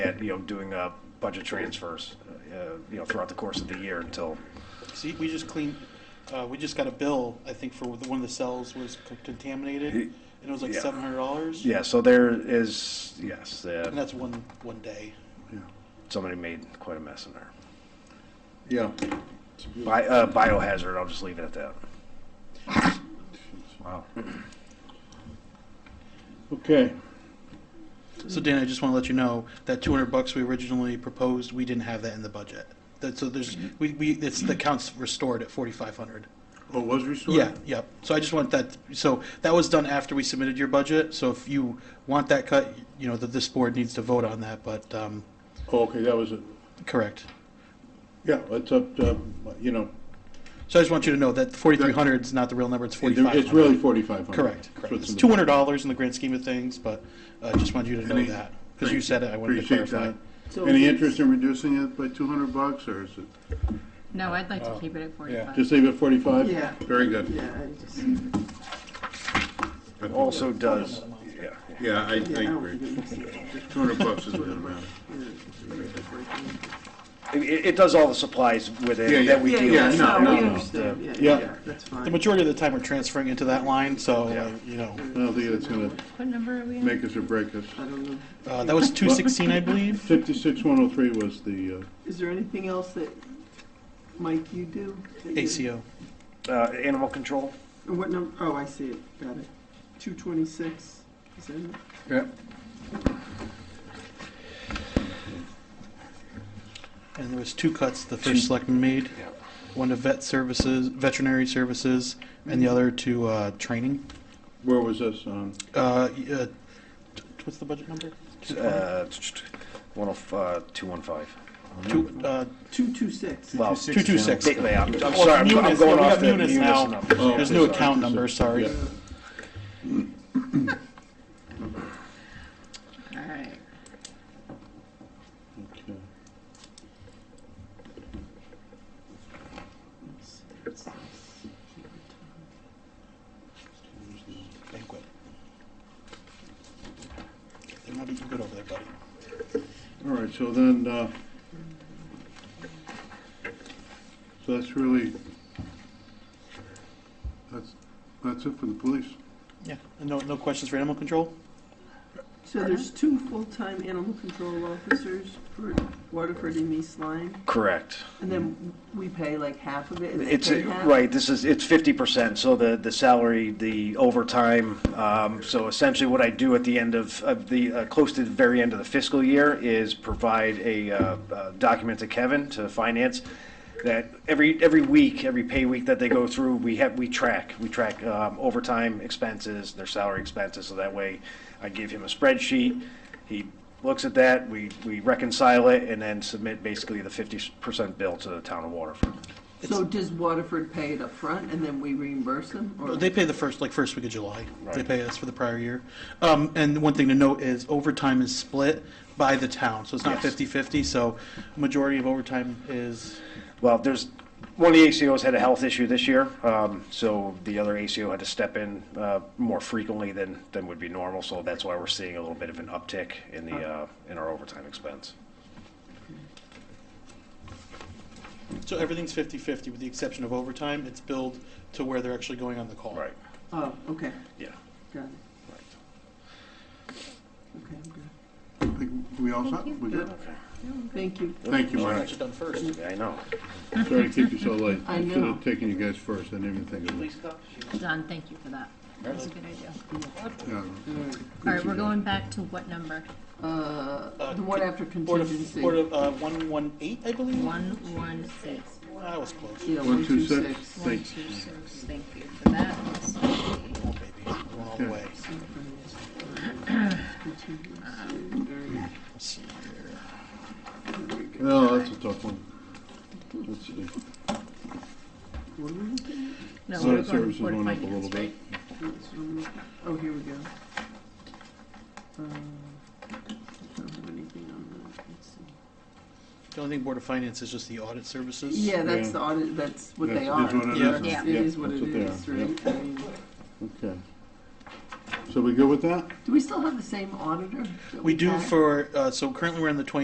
at, you know, doing uh, budget transfers, uh, you know, throughout the course of the year until, See, we just cleaned, uh, we just got a bill, I think, for the- one of the cells was co- contaminated, and it was like Yeah. seven hundred dollars. yeah, so there is, yes, And uh, that's one, one day. somebody made quite a mess in there. Yeah. Bi- uh, Biohazard, I'll just leave it at that. Wow. Okay, So Dan, I just wanna let you know, that two hundred bucks we originally proposed, we didn't have that in the budget. That, so there's, we, we, it's, the account's restored at forty-five hundred. oh, it was restored? Yeah, yeah. So I just want that, so that was done after we submitted your budget, so if you want that cut, you know, that this board needs to vote on that, but, um, Oh, Okay, that was it. correct. Yeah, it's up, to, you know, So I just want you to know that forty-three hundred is not the real number, it's forty-five hundred. it's really forty-five hundred. Correct, correct. It's two hundred dollars in the grand scheme of things, but I just wanted you to know Any- that, because you said it, I wanted to Appreciate clarify. that. Any interest in reducing it by two hundred bucks, or is it, No, I'd like to keep it at forty-five. Oh, just leave it forty-five? Yeah. Very good. Yeah, I just, Good. Also does, yeah, Yeah, I, I yeah, I don't agree. think it makes Two hundred bucks is a good amount. sense. it, it it does all the supplies Yeah, within yeah. that we deal yeah, with. no, we no, no. understand. Yeah, Yeah. yeah, yeah, that's The fine. majority of the time, we're transferring into that line, so, uh, Yeah. you know, I don't think that's gonna What number are we on? make us or break us. I don't know. uh, that was two sixteen, I believe. Fifty-six one oh three was the, uh, Is there anything else that, Mike, you do? that you- ACO, Uh, Animal control, And What number, oh, I see it, got it. Two twenty-six, is that it? yeah, and there was two cuts the first selectman made. One to vet services, veterinary services, and the other to, uh, training. where was this on? Uh, y- uh, t- what's the budget number? uh, one of, uh, two one five. Two, uh, Two two six. Well, two two six. they- they- I'm I'm Well, sorry, I'm- I'm Munis, yeah, going we off got the Munis munis now. numbers. Oh, There's okay, no sorry. account number, sorry. Yeah. All right. Okay. banquet. They're not eating good over there, buddy. All right, so then, uh, so that's really, that's, that's it for the police. Yeah. And no, no questions for animal control? So there's two full-time animal control officers for Waterford and East Lyme, Correct. and then we pay like half of it, and they It's, pay half? right, this is, it's fifty percent, so the, the salary, the overtime, um, so essentially what I do at the end of, of the, uh, close to the very end of the fiscal year is provide a, uh, uh, document to Kevin, to finance, that every, every week, every pay week that they go through, we have, we track, we track, um, overtime expenses, their salary expenses, so that way I give him a spreadsheet, he looks at that, we, we reconcile it, and then submit basically the fifty percent bill to the town of Waterford. So does Waterford pay it up front, and then we reimburse them, or? They pay the first, like, first week of July. They Right. pay us for the prior year. Um, and one thing to note is overtime is split by the town, so it's not Yes. fifty-fifty, so majority of overtime is, Well, there's, one of the ACOs had a health issue this year, um, so the other ACO had to step in, uh, more frequently than, than would be normal, so that's why we're seeing a little bit of an uptick in the, uh, in our overtime expense. so everything's fifty-fifty with the exception of overtime. It's billed to where they're actually going on the call. Right, Oh, okay, yeah. got it. Right. Okay, I'm good. I think we all set? We good? Okay. Thank you. Thank you, Should have Mike. actually done first. Yeah, I know. Sorry to keep you so late. I Should know. have taken you guys first, I didn't even think of it. John, thank you for that. That was a good idea. Yeah. All right. All right, we're going back to what number? Uh, the one after Board of, contingency. Board of, uh, one-one-eight, I believe? One, one, six. That was close. Yeah, One, two, six. One, Thanks. two, six. Thank you for that. Oh, baby, we're all the way. Contingency. Let's see here. No, that's a tough one. Let's see. What are we looking No, we're Audit going services to Board of went up a little Finance, right? bit. at? That's what I'm looking- Oh, here we go. Um, I don't have anything on that. Let's see. The only thing Board of Finance is just the audit services. Yeah, that's Yeah. the audit, that's what That's- they are. that's what it Yeah. is, Yeah. It is what that's it they is, are, right? I mean, yeah. Okay. So we good with that? Do we still have the same auditor? that We do had? for, uh, so currently we're in the twenty